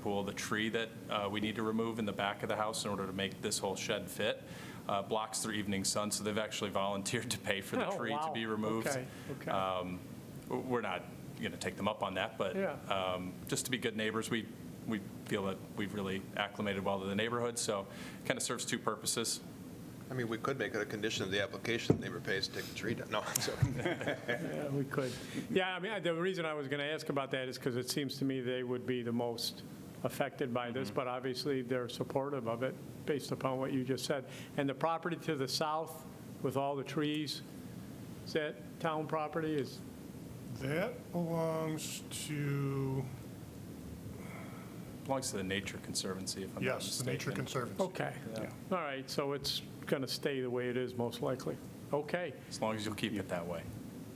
pool, the tree that uh, we need to remove in the back of the house in order to make this whole shed fit, uh, blocks their evening sun, so they've actually volunteered to pay for the Oh, tree to wow. be removed. Okay, okay. Um, w- We're not going to take them up on that, but Yeah. um, just to be good neighbors, we, we feel that we've really acclimated well to the neighborhood, so kind of serves two purposes. I mean, we could make it a condition of the application, the neighbor pays to take the tree down. No, I'm joking. Yeah, we could. Yeah, I mean, I- the reason I was going to ask about that is because it seems to me they would be the most affected by Mm-hmm. this, but obviously they're supportive of it based upon what you just said. And the property to the south with all the trees, is that town property is, That belongs to, Belongs to the Nature Conservancy, if I'm not yes, mistaken. the Nature Conservancy. okay. All right, so it's going to stay the way it is most likely. Okay. As long as you'll keep it that way.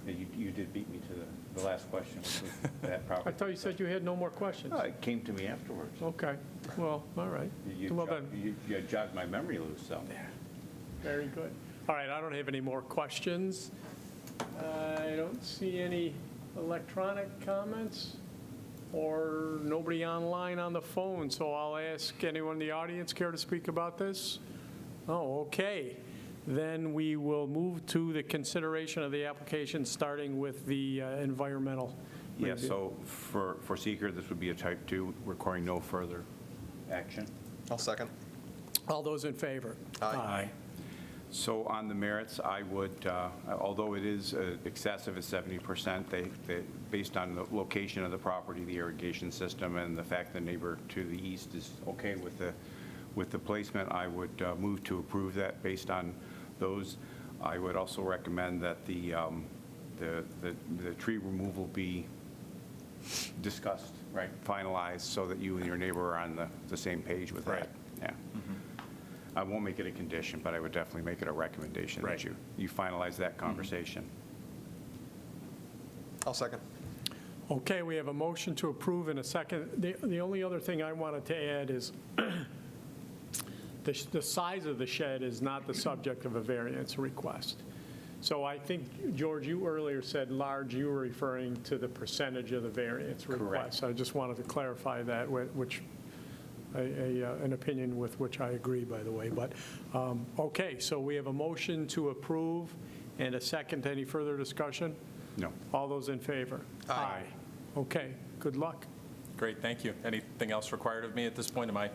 Yeah, You, you did beat me to the, the last question, which was that property. I thought you said you had no more questions. No, it came to me afterwards. Okay, well, all right. You- You Well, jog- then- you- you jogged my memory loose, so. Very good. All right, I don't have any more questions. I don't see any electronic comments or nobody online on the phone, so I'll ask anyone in the audience care to speak about this? Oh, okay. Then we will move to the consideration of the application, starting with the uh, environmental. Yeah, review. so for, for seeker, this would be a type two requiring no further. Action? I'll second. All those in favor? Aye. So on the merits, I would, uh, although it is uh, excessive at 70%, they, they, based on the location of the property, the irrigation system, and the fact the neighbor to the east is okay with the, with the placement, I would uh, move to approve that based on those. I would also recommend that the, um, the, the the tree removal be discussed, right, finalized, so that you and your neighbor are on the, the same page with that. Right. Yeah. I won't make it a condition, but I would definitely make it a recommendation Right. that you, you finalize that conversation. I'll second. Okay, we have a motion to approve in a second. The the only other thing I wanted to add is the sh- the size of the shed is not the subject of a variance request. So I think, George, you earlier said large, you were referring to the percentage of the variance request. I just wanted to clarify that, wh- which, a- a, uh, an opinion with which I agree, by the way. But, um, okay, so we have a motion to approve and a second. Any further discussion? No. All those in favor? Aye. Okay, good luck. Great, thank you. Anything else required of me at this point? Am I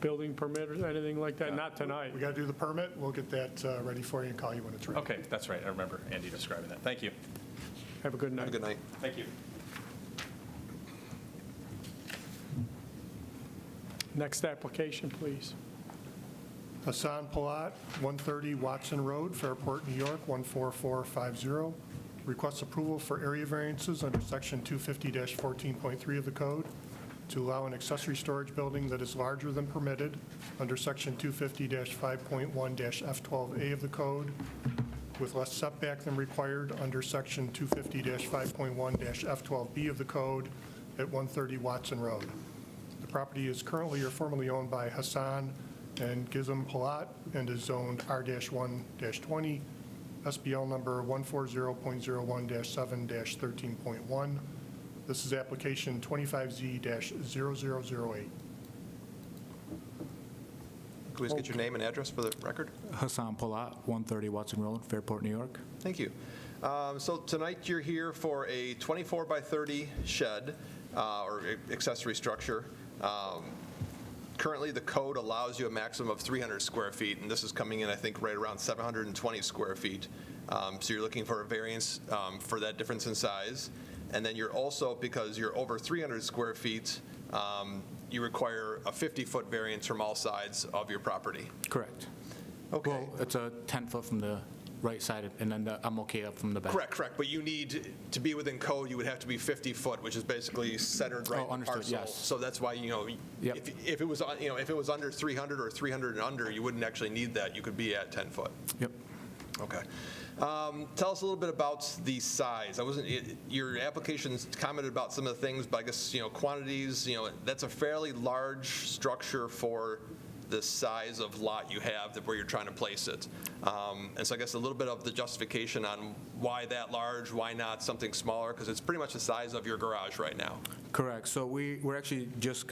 Building permit or anything like that? Not tonight. We got to do the permit, we'll get that uh, ready for you and call you when it's ready. Okay, that's right, I remember Andy describing that. Thank you. Have a good Have a night. good night. Thank you. Next application, please. Hassan Palat, 130 Watson Road, Fairport, New York, 14450. Requests approval for area variances under Section 250-14.3 of the code to allow an accessory storage building that is larger than permitted under Section 250-5.1-F12A of the code with less setback than required under Section 250-5.1-F12B of the code at 130 Watson Road. The property is currently or formerly owned by Hassan and Gizem Palat and is zoned R-1-20, SBL number 140.01-7-13.1. This is application 25Z-0008. Can we just get your name and address for the record? Hassan Palat, 130 Watson Road, Fairport, New York. Thank you. Um, So tonight, you're here for a 24 by 30 shed uh, or a- accessory structure. Um, Currently, the code allows you a maximum of 300 square feet, and this is coming in, I think, right around 720 square feet. Um, So you're looking for a variance um, for that difference in size. And then you're also, because you're over 300 square feet, um, you require a 50-foot variance from all sides of your property. Correct. Okay. Well, it's a 10-foot from the right side, and then the- I'm okay up from the back. Correct, correct, but you need, to be within code, you would have to be 50 foot, which is basically centered right Oh, in the understood, parcel. yes. So that's why, you know, Yep. if, if it was, on- you know, if it was under 300 or 300 and under, you wouldn't actually need that, you could be at 10 foot. Yep. Okay. Um, Tell us a little bit about the size. I wasn't, it- your application's commented about some of the things, but I guess, you know, quantities, you know, that's a fairly large structure for the size of lot you have that where you're trying to place it. Um, And so I guess a little bit of the justification on why that large, why not something smaller? Because it's pretty much the size of your garage right now. Correct. So we, we're actually just